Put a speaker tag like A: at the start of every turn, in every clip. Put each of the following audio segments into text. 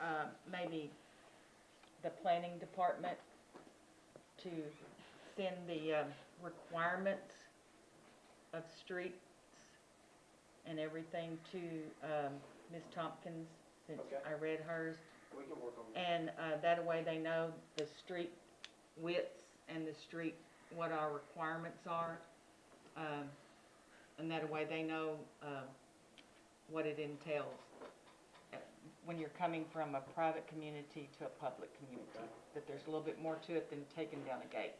A: um, maybe the planning department to send the um, requirements of streets and everything to um, Ms. Tompkins, since
B: Okay.
A: I read hers.
B: We can work on that.
A: And uh, that way they know the street widths and the street, what our requirements are. um, And that way they know uh, what it entails uh, when you're coming from a private community to a public community. That there's a little bit more to it than taking down a gate.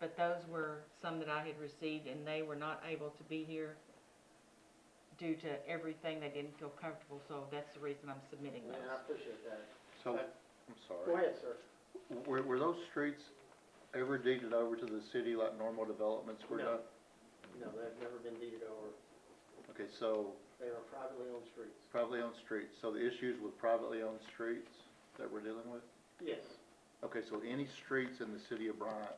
A: But those were some that I had received and they were not able to be here due to everything. They didn't feel comfortable, so that's the reason I'm submitting
B: And I
A: those.
B: appreciate that.
C: So,
B: Okay.
C: I'm
B: Go
C: sorry,
B: ahead, sir.
C: were, were those streets ever deeded over to the city like normal developments were
B: No.
C: done?
B: No, they've never been deeded over.
C: Okay, so
B: They are privately owned streets.
C: privately owned streets, so the issues with privately owned streets that we're dealing with?
B: Yes.
C: Okay, so any streets in the city of Bryant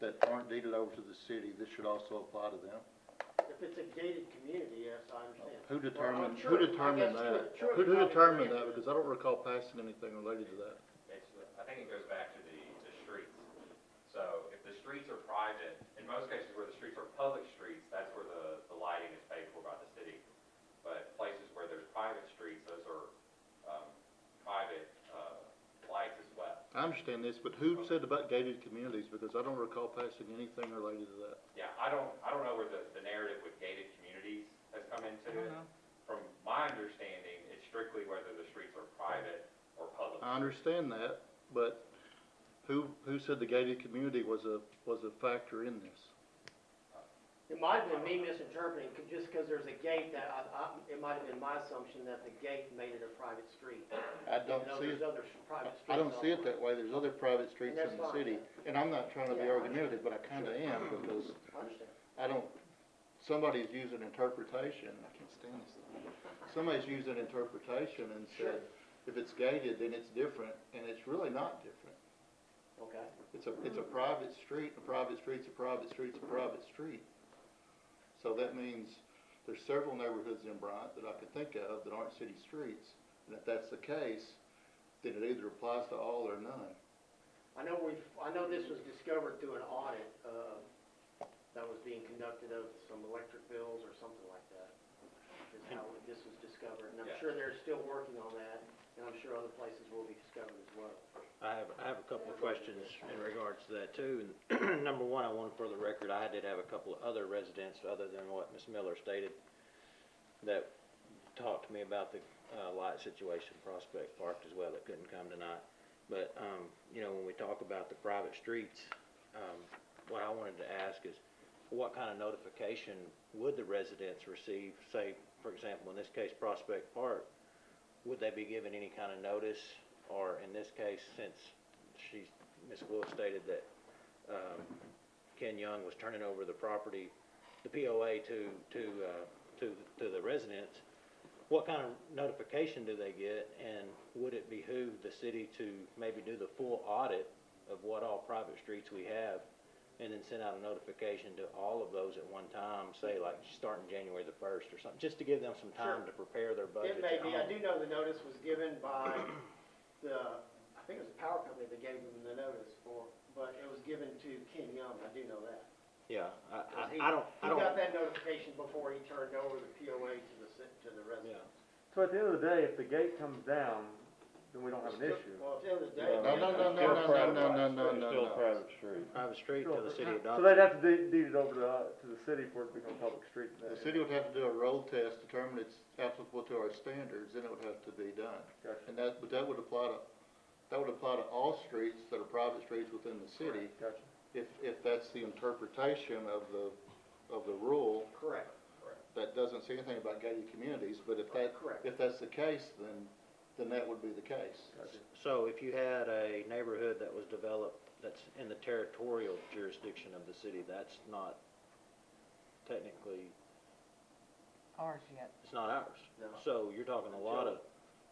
C: that aren't deeded over to the city, this should also apply to them?
B: If it's a gated community, yes, I understand.
C: Who
B: Well, I'm
C: determined,
B: sure-
C: who
B: I
C: determined
B: guess you-
C: that?
B: sure
C: Who,
B: you
C: who
B: probably
C: determined
B: can.
C: that, because I don't recall passing anything related to that.
D: It's, I think it goes back to the, the streets. So if the streets are private, in most cases where the streets are public streets, that's where the, the lighting is paid for by the city. But places where there's private streets, those are, um, private, uh, lights as well.
C: I understand this, but who said about gated communities, because I don't recall passing anything related to that.
D: Yeah, I don't, I don't know where the, the narrative with gated communities has come into
A: I don't
D: it.
A: know.
D: From my understanding, it's strictly whether the streets are private or public.
C: I understand that, but who, who said the gated community was a, was a factor in this? Oh.
B: It might have been me misinterpreting, 'cause just because there's a gate that I, I, it might have been my assumption that the gate made it a private street.
C: I don't
B: even though
C: see
B: there's
C: it,
B: other s- private streets.
C: I don't see it
B: elsewhere.
C: that way, there's other private
B: And
C: streets
B: that's
C: in the
B: fine.
C: city, and I'm not trying to be
B: Yeah, I
C: argumentative, but I kinda am, because
B: I understand.
C: I don't, somebody's using interpretation, I can't stand this thing. Somebody's using interpretation and said, if it's gated, then it's different, and it's really not different.
B: Okay.
C: It's a, it's a private street, a private street's a private street's a private street. So that means there's several neighborhoods in Bryant that I could think of that aren't city streets. And if that's the case, then it either applies to all or none.
B: I know we've, I know this was discovered through an audit, uh, that was being conducted of some electric bills or something like that. Is how this was discovered, and I'm
D: Yeah.
B: sure they're still working on that, and I'm sure other places will be discovered as well.
E: I have, I have a couple of questions in regards to that too. And Number one, I want for the record, I did have a couple of other residents, other than what Ms. Miller stated, that talked to me about the uh, light situation, Prospect Park as well, that couldn't come tonight. But, um, you know, when we talk about the private streets, um, what I wanted to ask is, what kind of notification would the residents receive? Say, for example, in this case, Prospect Park, would they be given any kind of notice? Or in this case, since she's, Ms. Wolf stated that, um, Ken Young was turning over the property, the POA to, to, uh, to, to the residents, what kind of notification do they get? And would it behoove the city to maybe do the full audit of what all private streets we have? And then send out a notification to all of those at one time, say like starting January the first or something, just to give them some time
B: Sure.
E: to prepare their
B: It
E: budget
B: may be, I do know the notice was given by the, I think it was the power company that gave them the notice for, but it was given to Ken Young, I do know that.
E: Yeah, I,
B: 'Cause he-
E: I, I don't, I don't,
B: He got that notification before he turned over the POA to the, ci- to the
E: yeah,
B: residents.
F: So at the end of the day, if the gate comes down, then we don't have an issue.
B: Well, at the end of the day.
C: No, no, no, no, no, no, no, no, no, no.
G: Still private street.
E: private street to the city of Dodge.
F: So they'd have to de- deed it over to, uh, to the city for it to become a public street. in that
C: The city would have to do a road test, determine it's applicable to our standards, then it would have to be done.
F: Gotcha.
C: And that, but that would apply to, that would apply to all streets that are private streets within the city,
F: area. Gotcha.
C: if, if that's the interpretation of the, of the rule.
B: Correct.
C: that doesn't say anything about gated communities, but if that,
B: Correct.
C: if that's the case, then, then that would be the case.
E: So if you had a neighborhood that was developed, that's in the territorial jurisdiction of the city, that's not technically,
A: Ours yet.
E: it's not ours.
B: No.
E: So you're talking a lot of,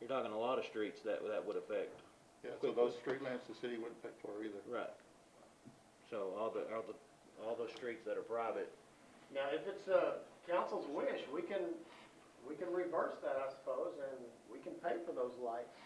E: you're talking a lot of streets that, that would affect,
C: Yeah, so those street lamps the city wouldn't pay for either.
E: right. So all the, all the, all those streets that are private,
B: Now, if it's, uh, council's wish, we can, we can reverse that, I suppose, and we can pay for those lights